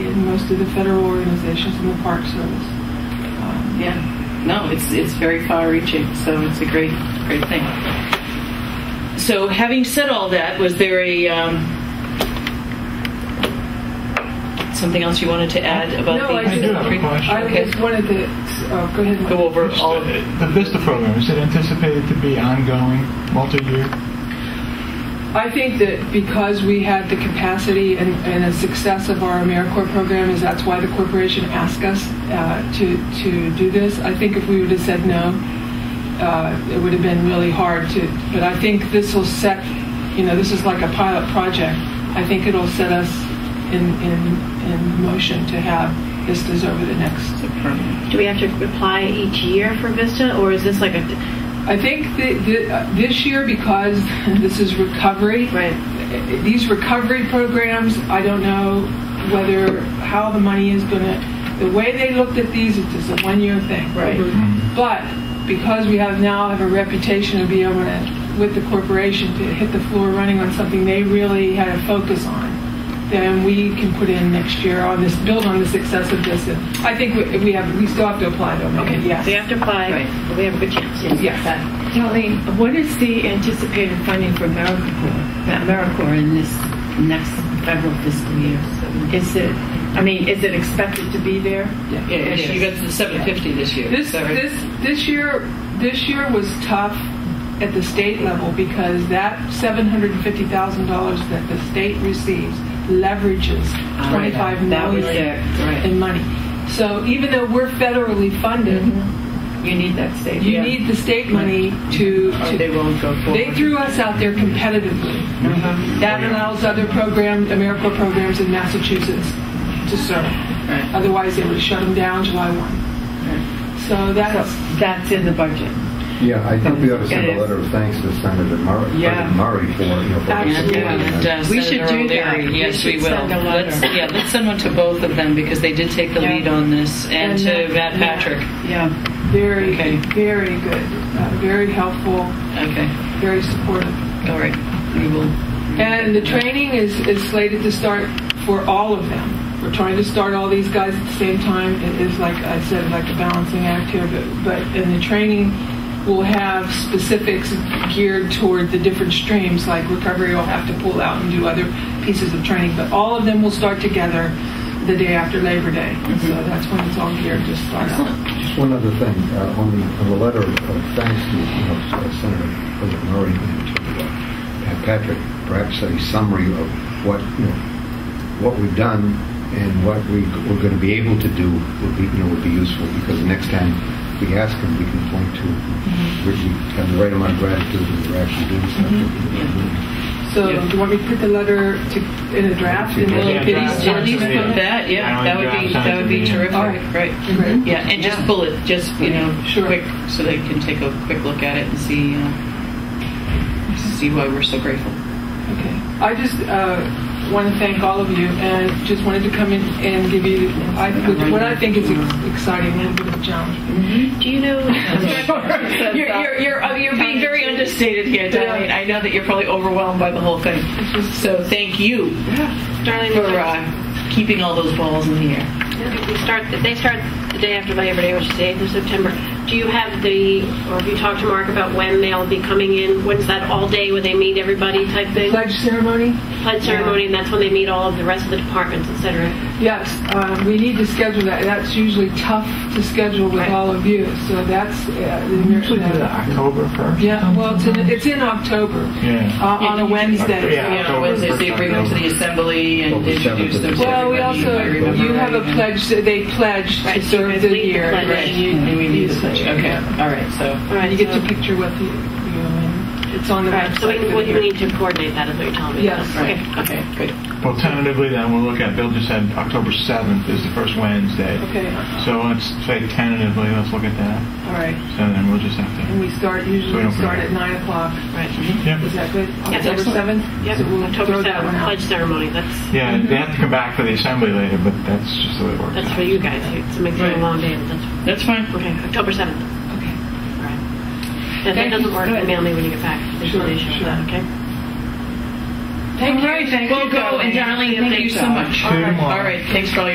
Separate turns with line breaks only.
from most of the federal organizations in the Park Service. Um,
Yeah. No, it's it's very far-reaching, so it's a great great thing. So, having said all that, was there a um, something else you wanted to add about
No,
the?
I
do have a question.
I
Okay.
just wanted to uh, go ahead. and
Go over all of it.
The VISTA program, is it anticipated to be ongoing, multi-year?
I think that because we had the capacity and, and the success of our AmeriCorps program is that's why the corporation asked us uh, to, to do this. I think if we would have said no, uh, it would have been really hard to, but I think this will set, you know, this is like a pilot project. I think it'll set us in, in, in motion to have vistas over the next
Do we have to apply each year for VISTA, or is this like a,
I think that th- uh, this year, because this is recovery,
Right.
uh, these recovery programs, I don't know whether, how the money is going to, the way they looked at these, it's just a one-year thing.
Right.
But because we have now have a reputation of being able to, with the corporation, to hit the floor running on something they really had a focus on, then we can put in next year on this, build on the success of this. And I think we- we have, we still have to apply though,
okay,
maybe, yes.
so you have to apply,
Right.
but we have a good chance.
Yes.
Kelly, what is the anticipated funding for AmeriCorps, the AmeriCorps in this next federal fiscal year? Is it, I mean, is it expected to be there?
Yeah, you got to the 750 this year.
This,
so-
this, this year, this year was tough at the state level because that $750,000 that the state receives leverages
Ah, right.
25
That was
million
it, right.
in money. So even though we're federally funded,
Mm-hmm. you need that state.
you
yeah.
need the state money to,
Or
to
they won't go forward.
they threw us out there competitively.
Mm-hmm.
That allows other programs, AmeriCorps programs in Massachusetts to serve.
Right.
Otherwise, they would have shut them down July 1. So
So
that's,
that's in the budget.
Yeah, I think we ought to send
It is.
a letter of thanks to Senator Murray,
Yeah.
President Murray for, you know, for his
Yeah,
support.
and, uh,
We
Senator
should do that.
O'Leary.
We
Yes, we
should
will.
send a letter.
Let's, yeah, let's send one to both of them because they did take the
Yeah.
lead on this, and, to
uh,
Matt
yeah,
Patrick.
Yeah,
Very,
Okay.
very good, uh, very helpful,
Okay,
very supportive.
all right, we will.
And the training is, is slated to start for all of them. We're trying to start all these guys at the same time. It is like I said, like a balancing act here, but, but and the training will have specifics geared toward the different streams, like recovery will have to pull out and do other pieces of training, but all of them will start together the day after Labor Day. So that's when it's all geared to start out.
Just one other thing, uh, on the, on the letter of thanks to, you know, uh, Senator President Murray and to uh, Pat Patrick, perhaps a summary of what, you know, what we've done and what we, we're going to be able to do would be, you know, would be useful because the next time we ask him, we can point to, we we have the right amount of gratitude that we're actually doing something.
So
Yeah.
do you want me to put the letter to, in a draft and
Well,
then
Yeah,
at least, at
draft
least
sounds
put
good.
that, yeah,
Yeah,
that would
draft
be,
sounds
that would be
good.
terrific,
All right.
right.
Great.
Yeah, and just bullet, just, you know,
Sure.
quick, so they can take a quick look at it and see, uh, see why we're so grateful.
Okay. I just uh, want to thank all of you and just wanted to come in and give you I, what I think is ex- exciting and a bit of a challenge.
Do you know?
You're, you're, you're, uh, you're being very understated here, Darlene. I know that you're probably overwhelmed by the whole thing. So thank you
Darlene,
for uh, keeping all those balls in the air.
we start, they start the day after Labor Day, which is the 8th of September. Do you have the, or have you talked to Mark about when they'll be coming in? When's that all day when they meet everybody type thing?
Pledge ceremony?
Pledge ceremony, and that's when they meet all of the rest of the departments, et cetera.
Yes, um, we need to schedule that. That's usually tough to schedule with all of you. So that's uh, the
Usually do that October 1st.
Yeah, well, it's in, it's in October
Yeah.
uh, on a Wednesday.
Yeah.
You know, Wednesday's the agreement to the assembly and
Well, the
introduce them
seventh
to
Well,
and
we
everybody, if
also,
I remember
you have a
right.
pledge, they pledge to
Right,
serve
you
the
lead the
year.
pledge.
Right, you, we need the pledge. Okay, all right, so.
All right,
You get
so-
to picture what the, you know, and it's on the
All right,
website.
so we,
for the
we
year.
need to coordinate that, is what you're telling me?
Yes.
Okay,
Right.
okay.
Okay, good.
Well, tentatively then, we'll look at, Bill just said October 7th is the first Wednesday.
Okay,
So let's say tentatively, let's look at that.
all right.
So then we'll just have to.
And we start, usually
So
we
don't
start
forget.
at 9 o'clock.
Right.
Yeah.
Is that good?
Yes,
October
excellent.
7th?
Yep,
So we'll
October
Mm-hmm. throw that one
7th,
out.
pledge ceremony, that's,
Yeah, they have to come back for the assembly later, but that's just the way it works.
that's for you guys, it's a
Right.
a long day, but that's,
That's fine.
okay, October 7th.
Okay.
All right. And If that
Thank you.
doesn't work, then
Good.
mail me when you get back, there's no
Sure,
issue with
sure.
that, okay?
Thank you.
right, thank
We'll
you,
go, and
Darlene.
Darlene, thank you so much.
Sure.
All right, thanks for all your